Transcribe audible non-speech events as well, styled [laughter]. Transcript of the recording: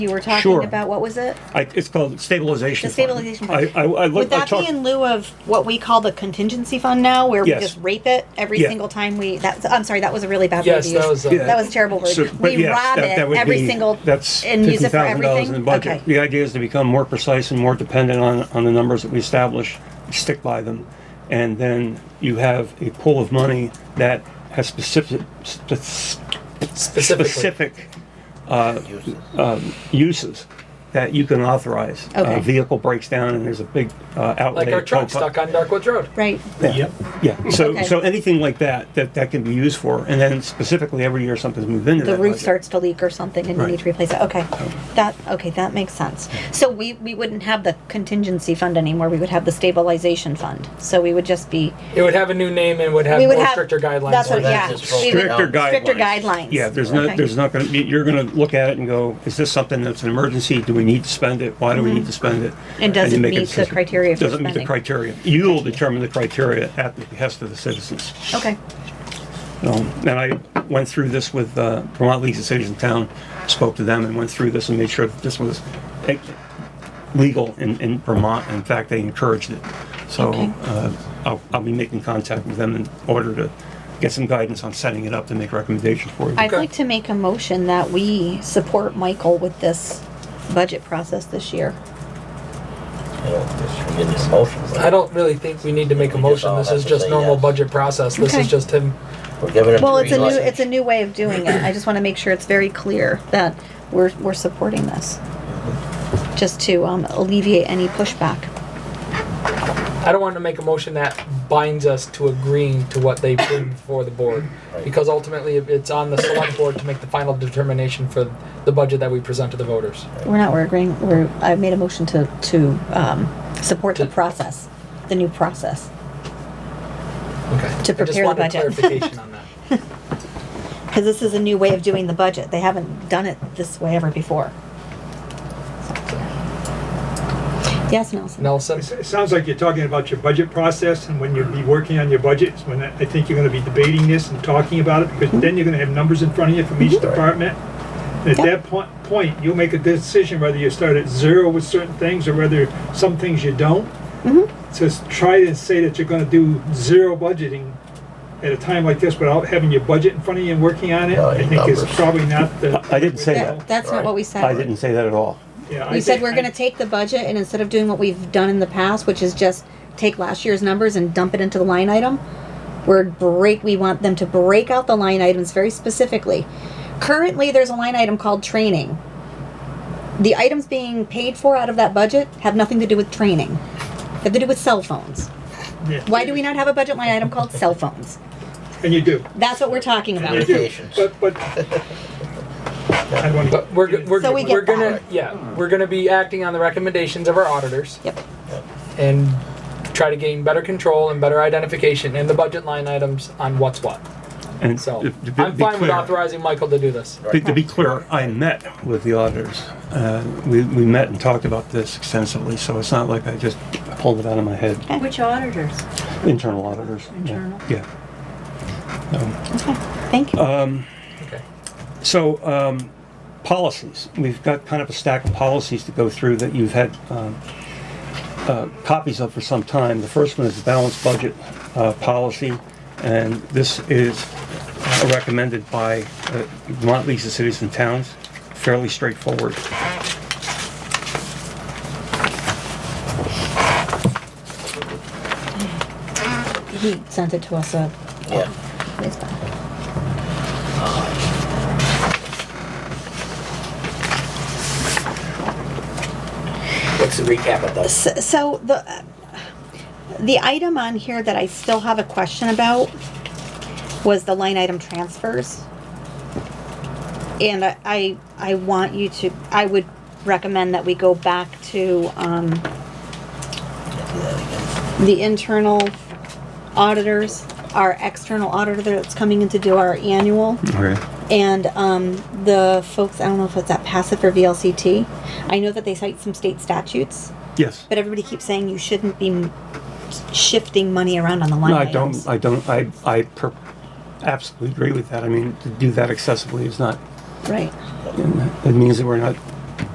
you were talking Sure. about, what was it? I, it's called stabilization. The stabilization fund. fund. I, I, I Would looked, I that be talked, in lieu of what we call the contingency fund now, where we Yes. just rape it every Yeah. single time we, that's, I'm sorry, that was a really bad word Yes, to that use. was, uh, Yeah. That was a terrible so- word. but We yes, rob that- it that would every be- single, that's and use it for $50,000 in the everything? budget. Okay. The idea is to become more precise and more dependent on, on the numbers that we establish, stick by them. And then you have a pool of money that has specific, spe- Specifically. specific um, uses that you can authorize. A Okay. Vehicle breaks down and there's a big uh, outlay. Like our of truck pump up. stuck on Darkwoods Road. right, Yep. Yeah, so, Okay. so anything like that, that, that can be used for, and then specifically every year something's moved into the that roof budget. starts to leak or something and you need to replace it, okay. That, okay, that makes sense. So we, we wouldn't have the contingency fund anymore, we would have the stabilization fund. So we would just be, It would have a new name and would have We would more have- stricter guidelines. that's what, on it. yeah. That's just we would- Stricter guidelines. Stricter guidelines. Yeah, there's not, Okay. there's not gonna, be- you're gonna look at it and go, is this something that's an emergency? Do we need to spend it? Why do we need to spend it? And does you it make meet the decision. criteria for Doesn't meet spending? the criteria. You'll determine the criteria at the behest of the citizens. Okay, Um, And I went through this with uh, Vermont League of Cities and Town, spoke to them and went through this and made sure that this was eh, legal in, in Vermont. In fact, they encouraged it. So Okay. uh, I'll, I'll be making contact with them in order to get some guidance on setting it up and make recommendations for you. I'd like to make a motion that we support Michael with this budget process this year. I don't think we get these motions. I don't really think we need to make a We just motion. all This have is to just say normal yes. budget process. This Okay. is just him. We're giving them. Well, three it's a new, lessons. it's a new way of doing it. I just want to make sure it's very clear that we're, we're supporting this. Just to um, alleviate any pushback. I don't want to make a motion that binds us to agreeing to what they bring before the board. Because ultimately, it- it's on the select board to make the final determination for the budget that we present to the voters. We're not, we're agreeing, we're, I made a motion to, to um, support the To- process, the new process. To Okay. I just prepare the wanted budget. clarification [laughs] on that. Because this is a new way of doing the budget. They haven't done it this way ever before. Yes, Nelson? Nelson? It sounds like you're talking about your budget process and when you'll be working on your budget is when I I think you're gonna be debating this and talking about it because then you're gonna have numbers in front of you from each department. And At Yep. that point, point, you'll make a decision whether you start at zero with certain things or whether some things you don't. So s- try to say that you're gonna do zero budgeting at a time like this without having your budget in front of you and working on it, Oh, I your think is numbers. probably not the. I didn't say That- That's not what we said. I didn't say that at all. Yeah, I We said think- we're gonna take the budget and instead of doing what we've done in the past, which is just take last year's numbers and dump it into the line item, we're break, we want them to break out the line items very specifically. Currently, there's a line item called training. The items being paid for out of that budget have nothing to do with training. They Have to do with cell phones. Yeah. Why do we not have a budget line item called cell phones? And you do. That's what we're talking You about. do. Medications. But, but. I don't wanna- But we're, go- we're, So we get we're gonna, that. yeah, we're gonna be acting on the recommendations of our auditors Yep. and try to gain better control and better identification in the budget line items on what's what. And So to- to be- I'm be fine with clear- authorizing Michael to do this. To to be clear, I met with the auditors. Uh, We, we met and talked about this extensively, so it's not like I just pulled it out of my head. Which auditors? Internal auditors. yeah, Internal. Yeah. Okay, thank you. Okay. So, um, policies. We've got kind of a stack of policies to go through that you've had um, uh, copies of for some time. The first one is the balanced budget uh, policy, and this is uh, recommended by uh, Vermont Leagues of Cities and Towns. Fairly straightforward. He sent it to us uh, a Yeah. ways back. What's the recap of those? S- so the the item on here that I still have a question about was the line item transfers. And I, I, I want you to, I would recommend that we go back to, um, the internal auditors, our external auditor that's coming in to do our annual Okay. and um, the folks, I don't know if it's at passive or VLCT. I know that they cite some state statutes. Yes. But everybody keeps saying you shouldn't be m- shifting money around on the line No, I items. don't, I don't, I, I per- absolutely agree with that. I mean, to do that excessively is not, Right. it means that we're not